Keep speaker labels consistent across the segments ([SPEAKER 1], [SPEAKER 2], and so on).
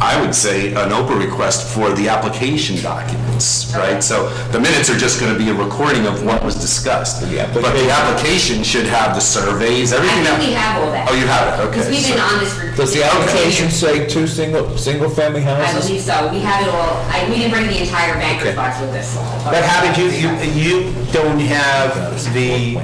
[SPEAKER 1] I would say, an Oprah request for the application documents, right? So the minutes are just gonna be a recording of what was discussed. But the application should have the surveys, everything.
[SPEAKER 2] I
[SPEAKER 1] that-
[SPEAKER 2] think we have all that.
[SPEAKER 1] Oh, you have it, okay.
[SPEAKER 2] Because we've been
[SPEAKER 1] so-
[SPEAKER 2] on this for.
[SPEAKER 3] Does the application say two single, single-family
[SPEAKER 2] I
[SPEAKER 3] houses?
[SPEAKER 2] believe so. We have it all, I, we didn't bring the entire
[SPEAKER 3] Okay.
[SPEAKER 2] banker's box with us.
[SPEAKER 4] But how did you, you, you don't have the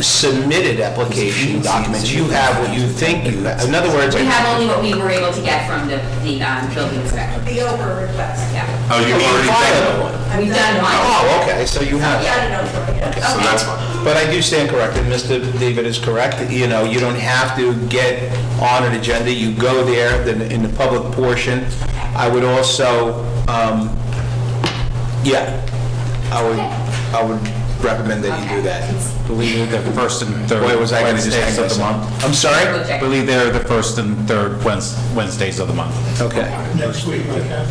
[SPEAKER 4] submitted application documents, you have what you think you have. In other words,
[SPEAKER 2] We have only what we were able to get from the, the, um, building inspector,
[SPEAKER 5] The Oprah request.
[SPEAKER 2] yeah.
[SPEAKER 1] Oh, you
[SPEAKER 4] you
[SPEAKER 1] already
[SPEAKER 4] filed
[SPEAKER 1] done it.
[SPEAKER 4] one.
[SPEAKER 2] We've done one.
[SPEAKER 4] Oh, okay, so you have.
[SPEAKER 5] Yeah, I don't know, yeah.
[SPEAKER 1] So that's fine.
[SPEAKER 4] But I do stand corrected, Mr. David is correct, you know, you don't have to get on an agenda, you go there then in the public portion. I would also, um, yeah, I would, I would recommend that you do that.
[SPEAKER 6] Believe they're the first and third
[SPEAKER 4] Boy, was I gonna just hang
[SPEAKER 6] Wednesdays of the
[SPEAKER 4] myself.
[SPEAKER 6] month.
[SPEAKER 4] I'm sorry?
[SPEAKER 2] Okay.
[SPEAKER 6] Believe they're the first and third Wednes- Wednesdays of the month.
[SPEAKER 4] Okay.
[SPEAKER 7] next week, okay?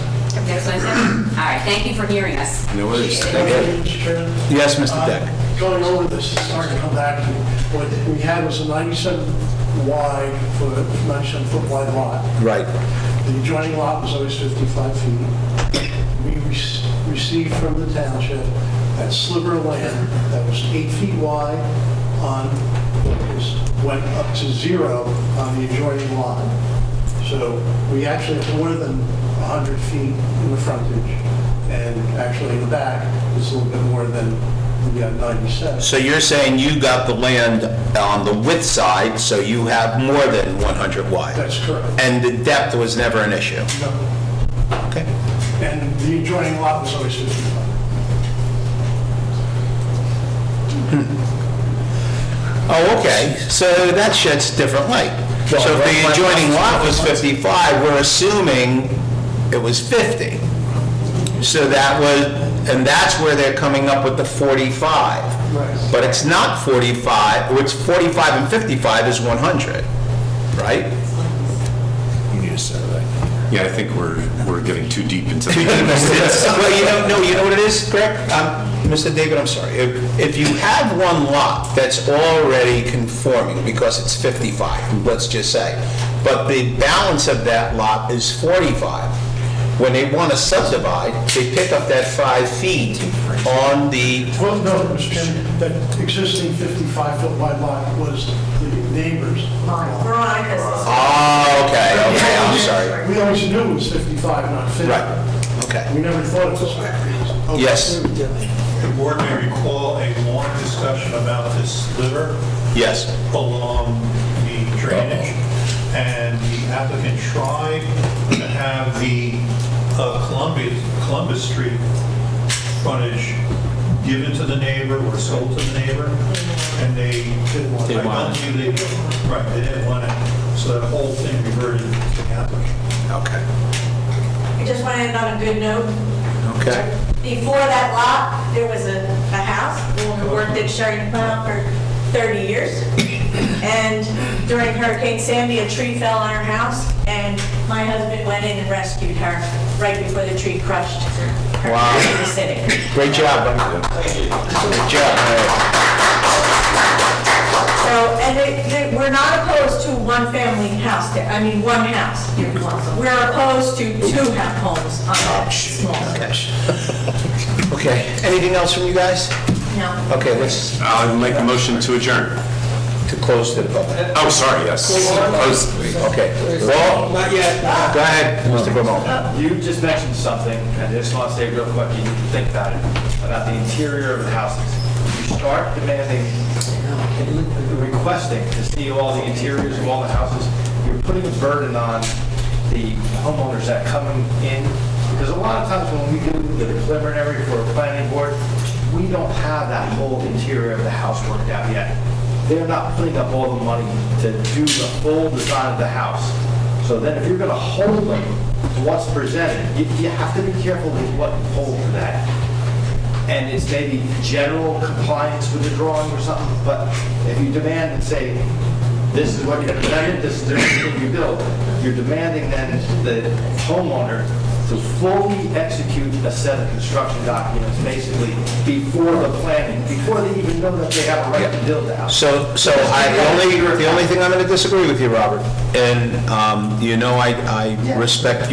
[SPEAKER 2] Next one, sir. All right, thank you for hearing us.
[SPEAKER 1] No worries.
[SPEAKER 2] Appreciate it.
[SPEAKER 7] Mr. Chairman.
[SPEAKER 4] Yes, Mr. Deck.
[SPEAKER 7] Uh, Going over this, it's hard to come back to, what we had was a 97 wide, for 97 foot wide lot.
[SPEAKER 4] Right.
[SPEAKER 7] The adjoining lot was always 55 feet. We rec- received from the township that sliver of land that was eight feet wide on, was- went up to zero on the adjoining lot. So we actually have more than 100 feet in the frontage, and actually in the back is a little bit more than the uh, 97.
[SPEAKER 4] So you're saying you got the land on the width side, so you have more than 100 wide?
[SPEAKER 7] That's correct.
[SPEAKER 4] And the depth was never an issue?
[SPEAKER 7] Okay. And the adjoining lot was always 55.
[SPEAKER 4] Oh, okay, so that sheds different light. So if the
[SPEAKER 3] Well,
[SPEAKER 4] adjoining lot was 55, we're assuming it was 50. So that was, and that's where they're coming up with the 45.
[SPEAKER 7] Right.
[SPEAKER 4] But it's not 45, it's 45 and 55 is 100, right?
[SPEAKER 1] Yeah, I think we're, we're getting too deep into the.
[SPEAKER 4] Well, you know, no, you know what it is, Greg? Um, Mr. David, I'm sorry. If if you have one lot that's already conforming, because it's 55, let's just say, but the balance of that lot is 45, when they want to subdivide, they pick up that five feet on the,
[SPEAKER 7] Well, no, Mr. Chairman, that existing 55-foot wide lot was the neighbor's lot.
[SPEAKER 5] Veronica's. is-
[SPEAKER 4] oh, okay, okay, I'm sorry.
[SPEAKER 7] We always knew it was 55, not 50.
[SPEAKER 4] Right, okay.
[SPEAKER 7] We never thought it was 50.
[SPEAKER 4] Yes,
[SPEAKER 8] The board may recall a long discussion about this liver
[SPEAKER 4] yes.
[SPEAKER 8] along the drainage, and the applicant tried to have the uh, Columbia, Columbus Street frontage given to the neighbor or sold to the neighbor, and they, I don't think they, right, they didn't want it, so that whole thing reverted to the applicant.
[SPEAKER 4] Okay,
[SPEAKER 5] I just want to end on a good note.
[SPEAKER 4] okay.
[SPEAKER 5] Before that lot, there was a, a house, the woman worked at Sherry Plow for 30 years. And during Hurricane Sandy, a tree fell on her house, and my husband went in and rescued her right before the tree crushed her
[SPEAKER 4] Wow.
[SPEAKER 5] in the city.
[SPEAKER 4] Great job, buddy. Great job.
[SPEAKER 5] So, and they, they, we're not opposed to one family house, there. I mean, one house. We're opposed to two ha- homes on that small.
[SPEAKER 4] Okay, anything else from you guys?
[SPEAKER 5] No.
[SPEAKER 4] Okay, let's,
[SPEAKER 1] I'll make a motion to adjourn.
[SPEAKER 4] to close to the public.
[SPEAKER 1] Oh, sorry, yes. Oh, Close.
[SPEAKER 4] Okay. Well, not yet. Go ahead, Mr. Bramall.
[SPEAKER 9] You just mentioned something, and I just want to say real quick, you need to think about it, about the interior of the houses. You start demanding, requesting to see all the interiors of all the houses, you're putting a burden on the homeowners that come in, because a lot of times when we do the preliminary for a planning board, we don't have that whole interior of the house worked out yet. They're not putting up all the money to do the full design of the house. So then if you're gonna hold them to what's presented, you, you have to be careful with what you hold to that. And it's maybe general compliance with the drawing or something, but if you demand and say, this is what you presented, this is everything you built, you're demanding then the homeowner to fully execute a set of construction documents, basically, before the planning, before they even know that they have a right to build the house.
[SPEAKER 4] So, so I, the only, the only thing I'm going to disagree with you, Robert, and um, you know I, I respect